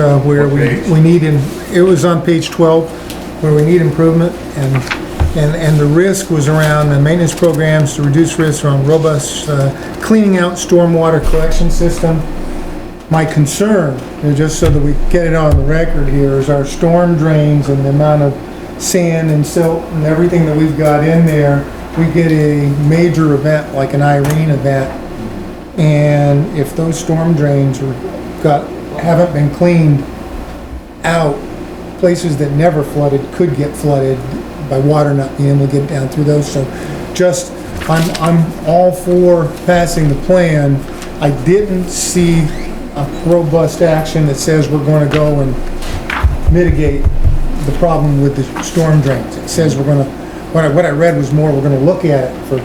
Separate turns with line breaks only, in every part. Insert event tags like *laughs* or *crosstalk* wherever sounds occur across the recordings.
uh, where
What
we,
page?
we need, in it was on page 12, where we need improvement, and, and, and the risk was around the maintenance programs to reduce risk around robust, uh, cleaning out stormwater collection system. My concern, and just so that we get it on the record here, is our storm drains and the amount of sand and silt and everything that we've got in there. We get a major event like an Irene event, and if those storm drains were, got, haven't been cleaned out, places that never flooded could get flooded by water not being able to get down through those, so just, I'm, I'm all for passing the plan. I didn't see a robust action that says we're gonna go and mitigate the problem with the storm drains. It says we're gonna, what I, what I read was more, we're gonna look at it for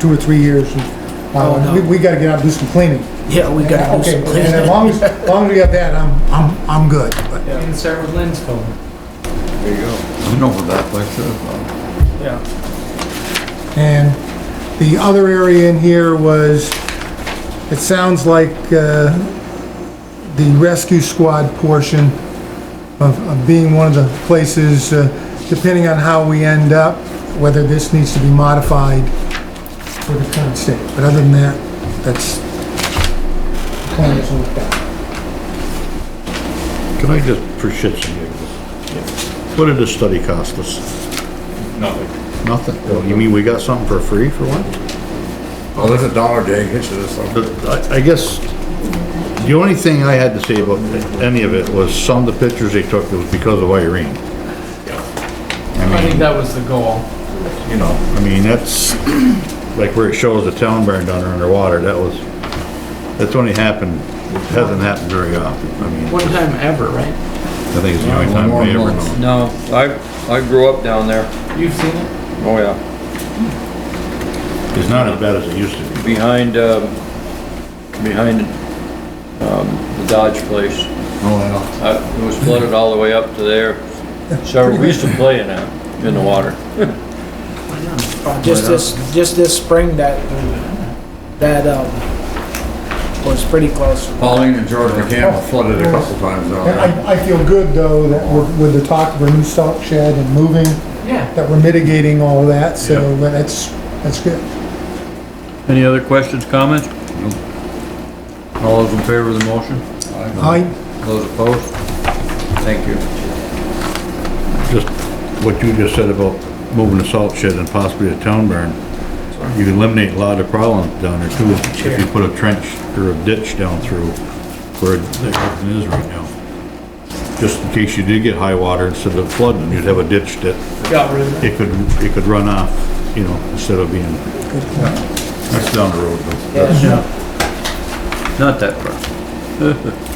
two or three years and,
Oh,
uh,
no.
we, we gotta get out and do some cleaning.
Yeah, we gotta do
Okay,
some
and as long as, as long as we have that, I'm, I'm, I'm good, but.
You can start with Lynn's phone.
There you go.
I know where that place is.
Yeah.
And the other area in here was, it sounds like uh, the rescue squad portion of of being one of the places, uh, depending on how we end up, whether this needs to be modified for the current state. But other than that, that's, the plan is looked at.
Can I just, for shits and giggles? What did the study cost us?
Nothing.
Nothing. Well, You mean we got something for free for one?
Well, Oh, there's a dollar day, hitch to this one.
But I, I guess, the only thing I had to say about any of it was some of the pictures they took was because of Irene.
I
I
think
mean,
that was the goal.
you know, I mean, that's, *clears throat* like where it shows the town burned under underwater, that was, that's only happened, hasn't happened very often. I mean,
One time ever, right?
I think it's the only time we ever know.
No, I, I grew up down there.
You've seen it?
Oh, yeah.
It's not as bad as it used to be.
Behind, um, behind, um, the Dodge place.
Oh,
Uh, It was flooded all the way up to there. So we used to play in that, in the water.
Just this, just this spring that, that, um, was pretty close.
Pauline and George McCampbell flooded a couple times down
And
there.
I, I feel good, though, that we're, with the talk of a new stock shed and moving,
Yeah.
that we're mitigating all that, so that's, that's good.
Any other questions, comments? All those in favor of the motion?
I,
Those opposed? Thank you.
just what you just said about moving the salt shed and possibly a town barn, you can eliminate a lot of problems down there too, if you put a trench or a ditch down through where everything is right now. Just in case you did get high water instead of flooding, you'd have a ditch that
Got rid of it.
it could, it could run off, you know, instead of being, that's down the road though.
Yeah,
Not that far. *laughs*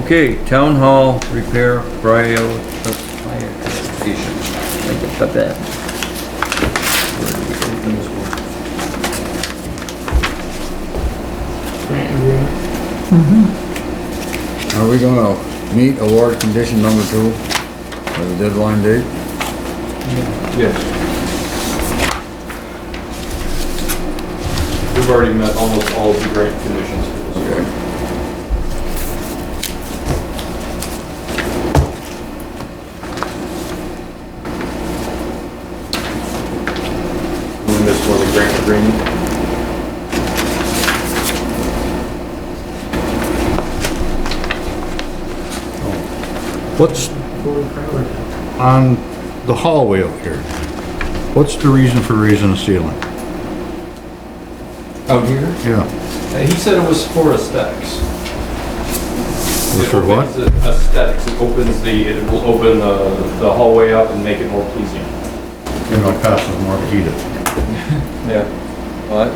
Okay, town hall repair prioritization. Think about that.
Are we gonna meet award condition number two, or the deadline date?
Yes. We've already met almost all of the grant conditions for this year.
Okay.
And this was a grant agreement.
What's on the hallway up here? What's the reason for raising the ceiling?
Out here?
Yeah,
He said it was for aesthetics.
was for
It
what?
opens the Aesthetics, it opens the, it will open the the hallway up and make it more pleasing.
you know, it costs us more to heat it.
Yeah. What?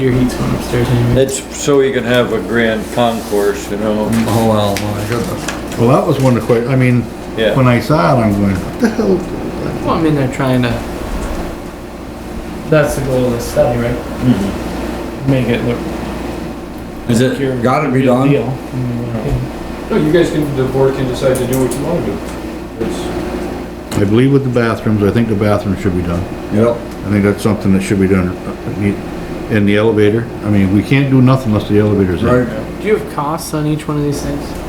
Your heat's going upstairs anyway.
It's so you can have a grand concourse, you know?
Oh, well, my goodness.
Well, that was one of the que, I mean,
Yeah.
when I saw it, I'm going, what the hell?
Well, I'm in there trying to. That's the goal of this study, right? Make it look.
Is it
secure,
gotta be
real
done?
deal. Mm,
No, you guys can, the board can decide to do what you want to do. It's-
I believe with the bathrooms, I think the bathrooms should be done.
Yep,
I think that's something that should be done. uh, need- And the elevator, I mean, we can't do nothing unless the elevator's in.
right.
yeah. Do you have costs on each one of these things?